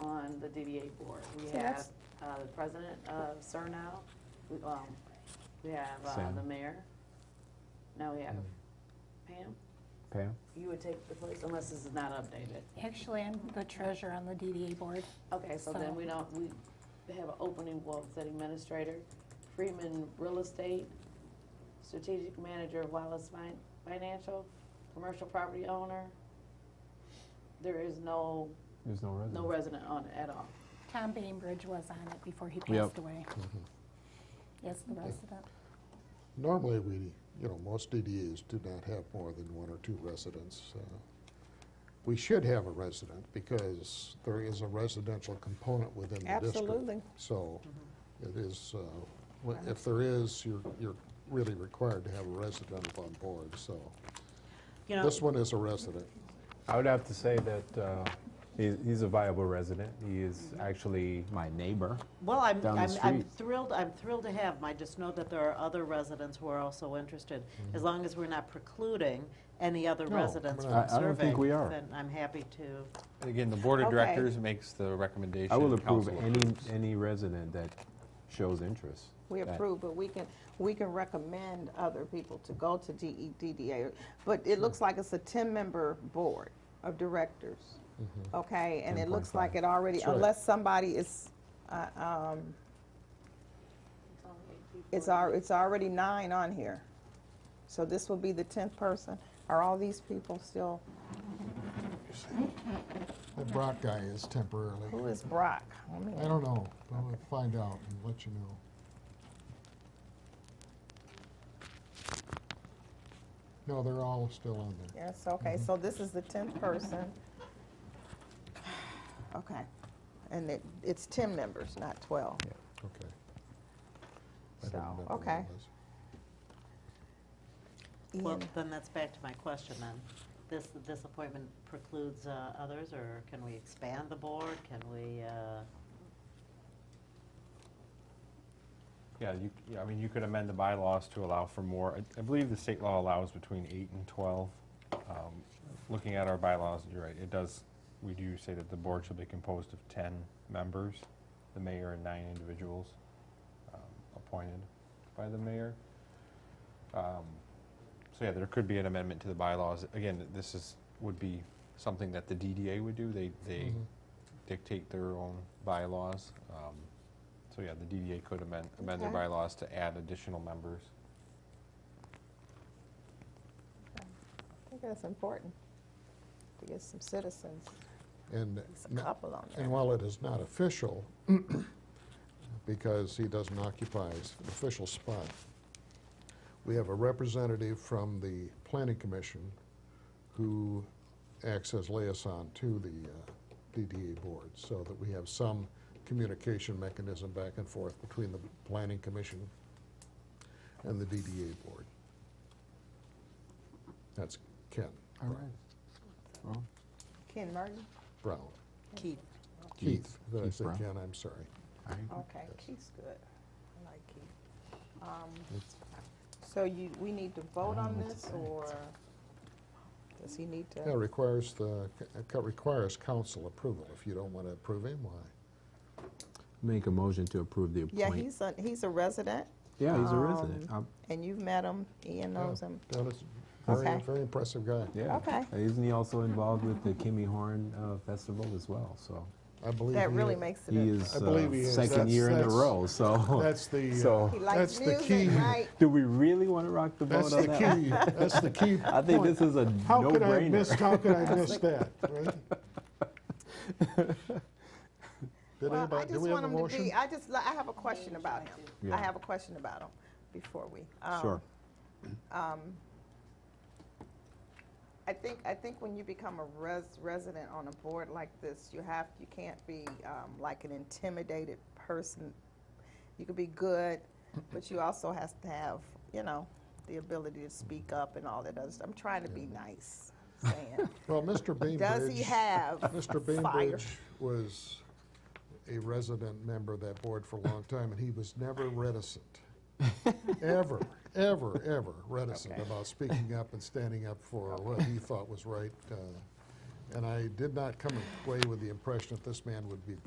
on the DDA board. We So have that's- uh, the president of Surnow, we um, we have uh, Sam. the mayor. Now we have Pam. Pam? You would take the place unless this is not updated. Actually, I'm the treasurer on the DDA board. Okay, so then So- we don't, we have an opening for city administrator, Freeman Real Estate, strategic manager of Wallace Fin- Financial, commercial property owner. There is no, There's no resident. no resident on it at all. Tom Bainbridge was on it before he Yep. passed away. Yes, the resident. Normally, we, you know, most DDAs do not have more than one or two residents. uh, We should have a resident because there is a residential component within the district. Absolutely. So it is, uh, wh- if there is, you're, you're really required to have a resident on board, so. You know, This one is a resident. I would have to say that uh, he- he's a viable resident. He is actually my neighbor. well, I'm, down the I'm I'm street. thrilled, I'm thrilled to have them. I just know that there are other residents who are also interested. Mm-hmm. As long as we're not precluding any other No, residents I- from I don't think serving. we are. Then I'm happy to, And Again, the board of Okay. directors makes the recommendation. I will approve council any, approves. any resident that shows interest. We That- approve, but we can, we can recommend other people to go to E DEDDA. But it looks like it's a ten-member board of directors, Mm-hmm. okay? And it looks 10.5. like it already, That's right. unless somebody is, uh, um, it's al, it's already nine on here. So this will be the tenth person. Are all these people still, The Brock guy is temporarily. who is Brock? Let me- I don't know. I'll find out and let you know. No, they're all still on there. Yes, okay, Mm-hmm. so this is the tenth person. Okay, and it, it's ten members, not twelve. Okay. I So, didn't remember what it okay. was. well, Ian, then that's back to my question then. This, this appointment precludes uh, others, or can we expand the board? Can we, uh, Yeah, you, yeah, I mean, you could amend the bylaws to allow for more. I- I believe the state law allows between eight and 12. Um, Looking at our bylaws, you're right, it does, we do say that the board shall be composed of 10 members, the mayor and nine individuals um, appointed by the mayor. Um, So yeah, there could be an amendment to the bylaws. Again, this is, would be something that the DDA would do. They, they Mm-hmm. Mhm. dictate their own bylaws. Um, So yeah, the DDA could amend, amend their Okay. bylaws to add additional members. I think that's important, to get some citizens, And, It's n- a couple on and there. while it is not official, because he doesn't occupy s- an official spot, we have a representative from the planning commission who acts as liaison to the uh, DDA board, so that we have some communication mechanism back and forth between the planning commission and the DDA board. That's Ken All right. Well, Ken Martin? Brown. Keith, Keith, did I Keith say Brown. Ken? I'm sorry. all right. Okay, Yes. Keith's good. I like Keith. Um, It's- So you, we need to vote don't on know what to this, say. or does he need Yeah, to? requires the, it requires council approval. If you don't want to approve him, why? Make a motion to approve the Yeah, appointment. he's a, he's a resident, Yeah, he's a um, resident. Um, and you've met him, Ian knows him. That is a very, Okay. very impressive guy. Yeah. okay. And Uh, Isn't he also involved with the Kimmy Horn uh, Festival as well? So I believe. That he- really makes it. he a- is I believe he uh, is. second That's- year in a that's- row, so. That's the, uh, So- He that's likes the key. music, right? Do we really want to rock the boat That's on the that? one? key, that's the key. I think point. this is a How could I miss, no-brainer. how could I miss that, right? Did Well, I anybody, do just we have want a him to motion? be, I just, li- I have a question about him. Yeah. I have a question about him before we. um, Sure. I think, I think when you become a res, resident on a board like this, you have, you can't be um, like an intimidated person. You could be good, but you also has to have, you know, the ability to speak up and all that other stuff. I'm trying to be nice, saying, Well, Mr. Bainbridge. does he have Mr. fire? Bainbridge was a resident member of that board for a long time, and he was never reticent. Ever, ever, ever reticent Okay. about speaking up and standing up for what he thought was right. uh, And I did not come away with the impression that this man would be